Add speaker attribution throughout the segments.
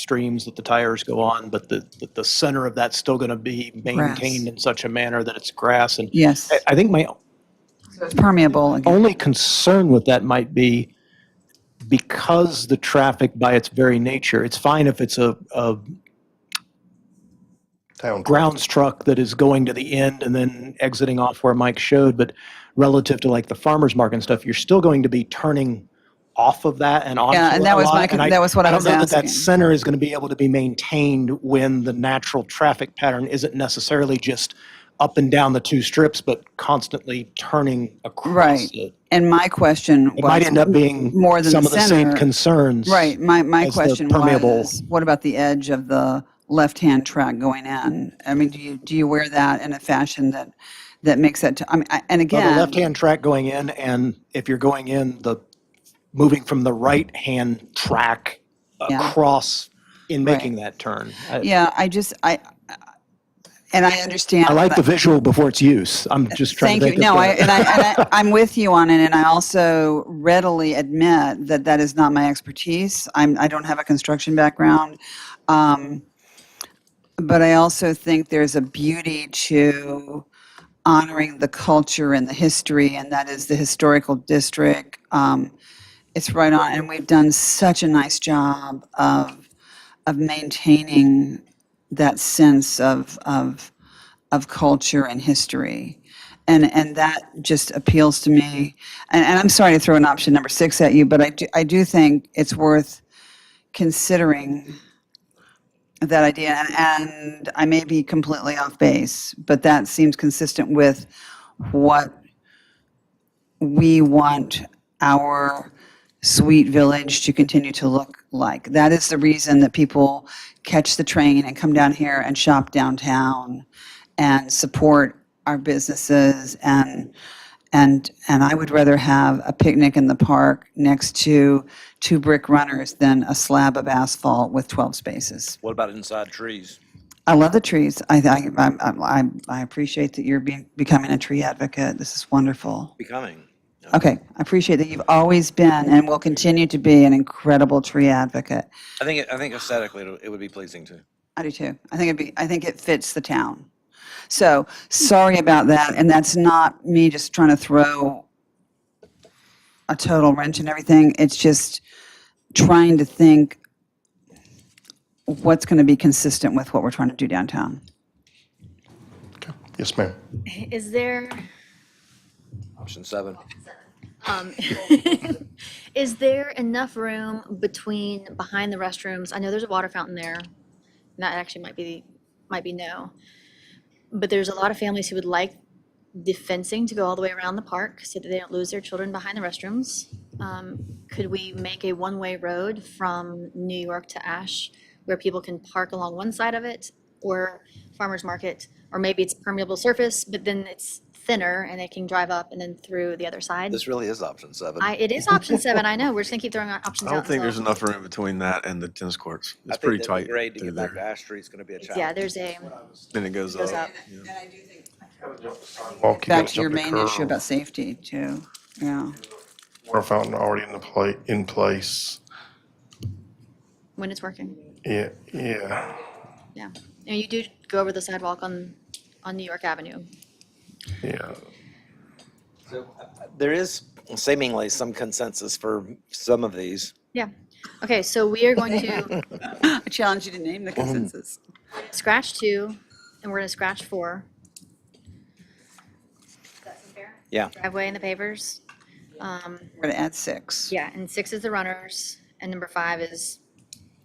Speaker 1: streams that the tires go on, but the, that the center of that's still going to be maintained in such a manner that it's grass. And
Speaker 2: Yes,
Speaker 1: I- I think my
Speaker 2: it's permeable again.
Speaker 1: only concern with that might be because the traffic by its very nature, it's fine if it's a, a
Speaker 3: Town.
Speaker 1: grounds truck that is going to the end and then exiting off where Mike showed, but relative to like the farmer's market and stuff, you're still going to be turning off of that and onto
Speaker 2: Yeah, and that
Speaker 1: a
Speaker 2: was
Speaker 1: lot,
Speaker 2: my
Speaker 1: and
Speaker 2: con-
Speaker 1: I-
Speaker 2: that was what I was
Speaker 1: don't know that
Speaker 2: asking.
Speaker 1: That center is going to be able to be maintained when the natural traffic pattern isn't necessarily just up and down the two strips, but constantly turning across
Speaker 2: Right.
Speaker 1: it.
Speaker 2: And my question was.
Speaker 1: Oh, It might end up being
Speaker 2: more than
Speaker 1: some
Speaker 2: the
Speaker 1: of the same
Speaker 2: center.
Speaker 1: concerns.
Speaker 2: Right, my, my
Speaker 1: as the
Speaker 2: question
Speaker 1: permeable-
Speaker 2: was, what about the edge of the left-hand track going in? I mean, do you, do you wear that in a fashion that, that makes that, t- I mean, I- and
Speaker 1: Well, the
Speaker 2: again,
Speaker 1: left-hand track going in, and if you're going in, the, moving from the right-hand track
Speaker 2: Yeah.
Speaker 1: across in
Speaker 2: Right.
Speaker 1: making that turn. I-
Speaker 2: yeah, I just, I, and I understand.
Speaker 1: I like
Speaker 2: that-
Speaker 1: the visual before its use. I'm just trying
Speaker 2: Thank
Speaker 1: to
Speaker 2: you.
Speaker 1: think of
Speaker 2: No, I,
Speaker 1: the-
Speaker 2: and I, and I, I'm with you on it, and I also readily admit that that is not my expertise. I'm, I don't have a construction background. Um, but I also think there's a beauty to honoring the culture and the history, and that is the historical district. Um, it's right on, and we've done such a nice job of, of maintaining that sense of, of, of culture and history. And, and that just appeals to me. And, and I'm sorry to throw an option number six at you, but I do, I do think it's worth considering that idea. And, and I may be completely off base, but that seems consistent with what we want our sweet village to continue to look like. That is the reason that people catch the train and come down here and shop downtown and support our businesses and and and I would rather have a picnic in the park next to two brick runners than a slab of asphalt with 12 spaces.
Speaker 4: What about inside trees?
Speaker 2: I love the trees. I I I'm- I'm- I, I appreciate that you're being, becoming a tree advocate. This is wonderful.
Speaker 4: Becoming.
Speaker 2: Okay, I appreciate that you've always been and will continue to be an incredible tree advocate.
Speaker 4: I think, it- I think aesthetically, it'll- it would be pleasing too.
Speaker 2: I do too. I think it'd be, I think it fits the town. So, sorry about that, and that's not me just trying to throw a total wrench in everything. It's just trying to think what's going to be consistent with what we're trying to do downtown.
Speaker 3: Yes, ma'am.
Speaker 5: Is there,
Speaker 4: Option seven.
Speaker 5: um, is there enough room between, behind the restrooms? I know there's a water fountain there. and That actually might be, might be no. But there's a lot of families who would like the fencing to go all the way around the park so that they don't lose their children behind the restrooms. Um, could we make a one-way road from New York to Ash where people can park along one side of it or farmer's market? Or maybe it's permeable surface, but then it's thinner and they can drive up and then through the other side?
Speaker 4: This really is option seven.
Speaker 5: I, it is option seven, I know, we're just gonna keep throwing out options out.
Speaker 6: I don't think there's
Speaker 5: until-
Speaker 6: enough room between that and the tennis courts.
Speaker 4: I
Speaker 6: It's
Speaker 4: think
Speaker 6: pretty
Speaker 4: that the
Speaker 6: tight
Speaker 4: Grade to
Speaker 6: through
Speaker 4: get back to
Speaker 6: there.
Speaker 4: Ash Street's gonna be a
Speaker 5: Yeah,
Speaker 4: challenge.
Speaker 5: there's a,
Speaker 6: Then it goes
Speaker 5: goes
Speaker 6: up.
Speaker 5: up.
Speaker 3: Walk, you
Speaker 2: Back
Speaker 3: gotta
Speaker 2: to your
Speaker 3: jump the
Speaker 2: main issue
Speaker 3: curb.
Speaker 2: about safety too, yeah.
Speaker 3: Water fountain already in the pla, in place.
Speaker 5: when it's working,
Speaker 3: Yeah, yeah,
Speaker 5: yeah. And you do go over the sidewalk on, on New York Avenue.
Speaker 3: yeah.
Speaker 4: There is seemingly some consensus for some of these.
Speaker 5: Yeah, okay, so we are going to
Speaker 2: I challenge you to name the consensus.
Speaker 5: scratch two, and we're gonna scratch four. That's fair.
Speaker 4: Yeah.
Speaker 5: Driveway and the pavers,
Speaker 2: We're going to add six.
Speaker 5: yeah, and six is the runners, and number five is,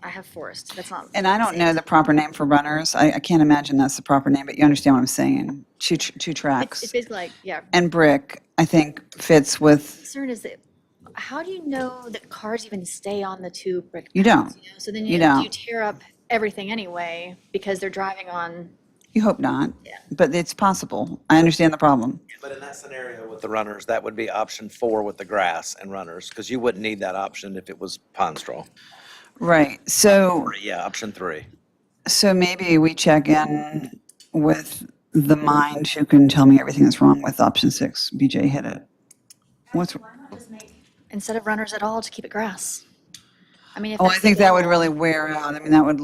Speaker 5: I have forest, that's not.
Speaker 2: And I don't know the proper name for runners. I, I can't imagine that's the proper name, but you understand what I'm saying. Two, tr- two
Speaker 5: It's
Speaker 2: tracks.
Speaker 5: it's basically like, yeah,
Speaker 2: And brick, I think, fits with,
Speaker 5: concern is that, how do you know that cars even stay on the two brick
Speaker 2: you don't,
Speaker 5: you know, So then
Speaker 2: You
Speaker 5: you,
Speaker 2: don't.
Speaker 5: you tear up everything anyway because they're driving on.
Speaker 2: you hope not, but it's possible. I understand the problem.
Speaker 4: But in that scenario with the runners, that would be option four with the grass and runners, because you wouldn't need that option if it was pine straw.
Speaker 2: Right, so,
Speaker 4: Or, Yeah, option three.
Speaker 2: so maybe we check in with the mind who can tell me everything that's wrong with option six. BJ hit it. What's,
Speaker 5: Instead of runners at all, to keep it grass. I mean, if
Speaker 2: Oh, I
Speaker 5: that's the
Speaker 2: think that would
Speaker 5: goal.
Speaker 2: really wear out. I mean, that would